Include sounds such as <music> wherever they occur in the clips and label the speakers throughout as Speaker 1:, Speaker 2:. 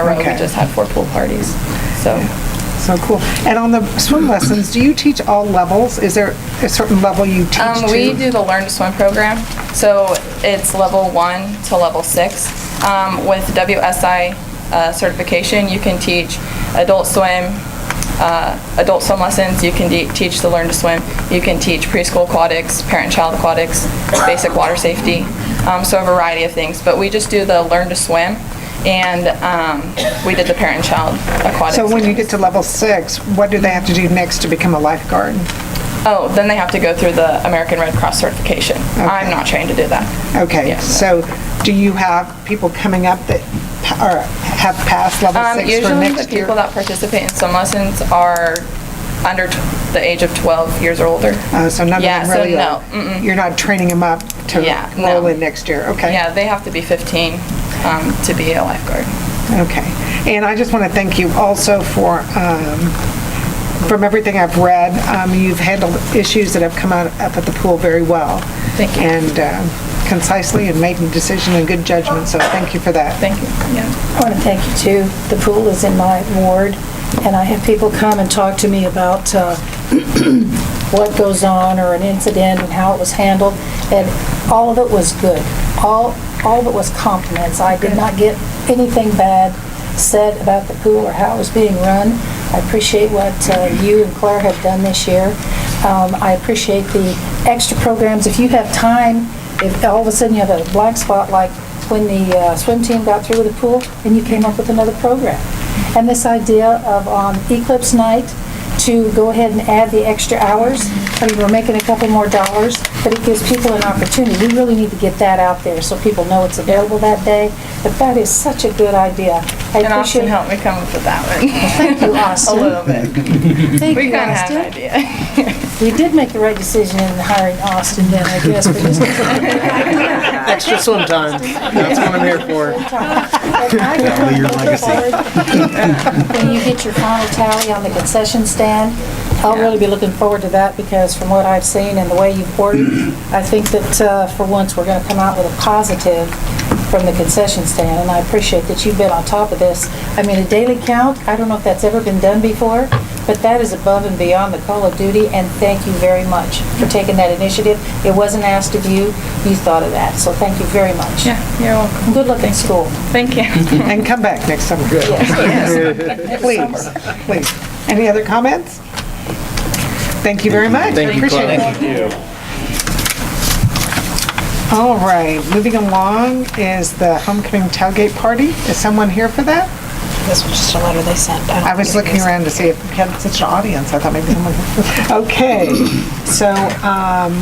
Speaker 1: a row, we
Speaker 2: Okay.
Speaker 1: just had four pool parties, so.
Speaker 2: So cool. And on the swim lessons, do you teach all levels? Is there a certain level you teach
Speaker 1: Um,
Speaker 2: to?
Speaker 1: we do the Learn to Swim program, so it's level one to level six. Um, with WSI uh, certification, you can teach adult swim, uh, adult swim lessons, you can de- teach the Learn to Swim, you can teach preschool aquatics, parent-child aquatics, basic water safety, um, so a variety of things. But we just do the Learn to Swim, and, um, we did the parent-child aquatics.
Speaker 2: So when you get to level six, what do they have to do next to become a lifeguard?
Speaker 1: Oh, then they have to go through the American Red Cross certification. I'm not trained to do that.
Speaker 2: Okay,
Speaker 1: Yes.
Speaker 2: so do you have people coming up that pa- or have passed level
Speaker 1: Um,
Speaker 2: six for
Speaker 1: usually the
Speaker 2: next year?
Speaker 1: people that participate in swim lessons are under t- the age of 12 years or older.
Speaker 2: Oh, So none of
Speaker 1: Yeah,
Speaker 2: them
Speaker 1: so
Speaker 2: really
Speaker 1: no,
Speaker 2: are? You're not training them up to
Speaker 1: Yeah, no.
Speaker 2: roll in next year? Okay.
Speaker 1: Yeah, they have to be 15 um, to be a lifeguard.
Speaker 2: Okay. And I just want to thank you also for, um, from everything I've read, um, you've handled issues that have come out up at the pool very well.
Speaker 1: Thank you.
Speaker 2: And um, concisely and making decision and good judgment, so thank you for that.
Speaker 1: Thank you. Yeah.
Speaker 3: I want to thank you, too. The pool is in my ward, and I have people come and talk to me about uh, what goes on or an incident and how it was handled, and all of it was good. All, all of it was compliments. I did not get anything bad said about the pool or how it was being run. I appreciate what uh, you and Claire have done this year. Um, I appreciate the extra programs. If you have time, if all of a sudden you have a black spot, like when the uh, swim team got through with the pool, and you came up with another program. And this idea of on Eclipse Night, to go ahead and add the extra hours. I mean, we're making a couple more dollars, but it gives people an opportunity. We really need to get that out there so people know it's available that day. But that is such a good idea. I
Speaker 1: And Austin
Speaker 3: appreciate
Speaker 1: helped me come up with that
Speaker 2: <laughs>
Speaker 1: one.
Speaker 3: Thank
Speaker 1: <laughs>
Speaker 3: you,
Speaker 1: A
Speaker 3: Austin.
Speaker 1: little bit.
Speaker 3: Thank
Speaker 1: We
Speaker 3: you,
Speaker 1: kind of had
Speaker 3: Austin.
Speaker 1: an idea. <laughs>
Speaker 3: We did make the right decision in hiring Austin then, I guess, but just
Speaker 4: Extra swim time. That's what I'm here for.
Speaker 3: Leave your legacy. When you get your final tally on the concession stand, I'll really be looking forward to that because from what I've seen and the way you've ordered, I think that uh, for once, we're going to come out with a positive from the concession stand, and I appreciate that you've been on top of this. I mean, a daily count, I don't know if that's ever been done before, but that is above and beyond the call of duty, and thank you very much for taking that initiative. It wasn't asked of you, you thought of that, so thank you very much.
Speaker 1: Yeah, you're welcome.
Speaker 3: Good luck in school.
Speaker 1: Thank
Speaker 2: <laughs>
Speaker 1: you.
Speaker 2: And come back next summer. <laughs> Please, please. Any other comments? Thank you very much.
Speaker 4: Thank you,
Speaker 2: Appreciate
Speaker 4: Claudia.
Speaker 2: it. All right, moving along is the homecoming tailgate party. Is someone here for that?
Speaker 5: This was just a letter they sent. don't
Speaker 2: I was
Speaker 5: think it
Speaker 2: looking
Speaker 5: is.
Speaker 2: around to see if we had such an audience. I thought maybe someone.
Speaker 5: <laughs>
Speaker 2: Okay, so um,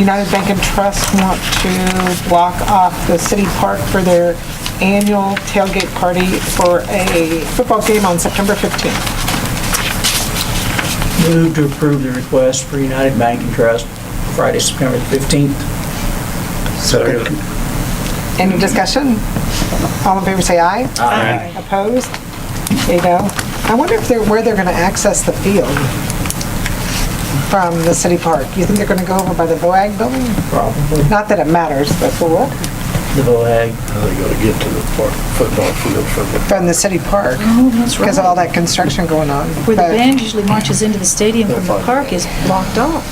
Speaker 2: United Bank and Trust want to block off the city park for their annual tailgate party for a football game on September 15th.
Speaker 6: Move to approve the request for United Bank and Trust Friday, September 15th. Second.
Speaker 2: Any discussion? All in favor, say aye.
Speaker 6: Aye.
Speaker 2: Opposed? There you go. I wonder if they're, where they're going to access the field from the city park. You think they're going to go over by the Boag building?
Speaker 6: Probably
Speaker 2: Not that it matters, but for what?
Speaker 6: the VOAG.
Speaker 7: How they gonna get to the park, football field from the
Speaker 2: From the city park,
Speaker 3: Oh, That's
Speaker 2: because of all that construction going on.
Speaker 3: Where the
Speaker 2: But-
Speaker 3: band usually marches into the stadium from the park is blocked off.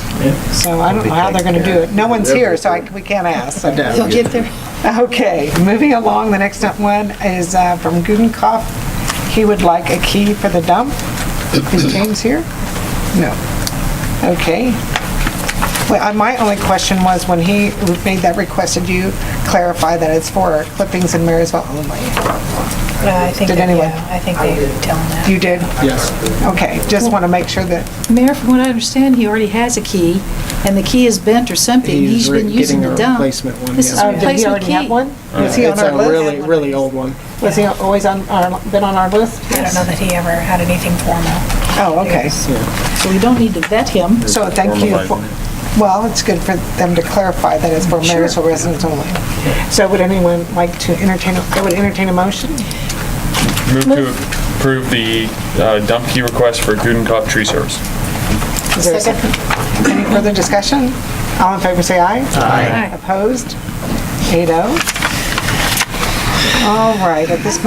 Speaker 2: So Oh, I don't know how they're going to do it. No one's here, so I, we can't ask. so-
Speaker 3: They'll get there.
Speaker 2: Okay, moving along, the next one is uh, from Gudenkauf. He would like a key for the dump. Is James here? No. Okay. Well, I- my only question was, when he made that request, did you clarify that it's for clippings in Marysville only?
Speaker 5: Yeah, I think,
Speaker 2: Did
Speaker 5: that-
Speaker 2: anyone-
Speaker 5: yeah, I think they tell them that.
Speaker 2: You did? Yes. Okay, just want to make sure that,
Speaker 3: Mayor, from what I understand, he already has a key, and the key is bent or something.
Speaker 4: He's
Speaker 3: He's been
Speaker 4: re-
Speaker 3: using
Speaker 4: getting a
Speaker 3: the dump.
Speaker 4: replacement one,
Speaker 3: This
Speaker 4: yeah.
Speaker 3: is a
Speaker 2: oh, did he
Speaker 3: replacement
Speaker 2: already
Speaker 3: key.
Speaker 2: have one? Was he on
Speaker 4: It's
Speaker 2: our
Speaker 4: a really,
Speaker 2: list?
Speaker 4: really old one.
Speaker 2: Was he always on our, been on our list?
Speaker 5: I don't know that he ever had anything formal.
Speaker 2: Oh, okay.
Speaker 3: So we don't need to vet him.
Speaker 2: So thank you. for- Well, it's good for them to clarify that it's for Marysville residents only. So would anyone like to entertain, a- I would entertain a motion?
Speaker 8: Move to approve the uh, dump key request for Gudenkauf Tree Service.
Speaker 2: Is there a second? Any further discussion? All in favor, say aye. Aye. Opposed? Eight oh. All right, at this moment,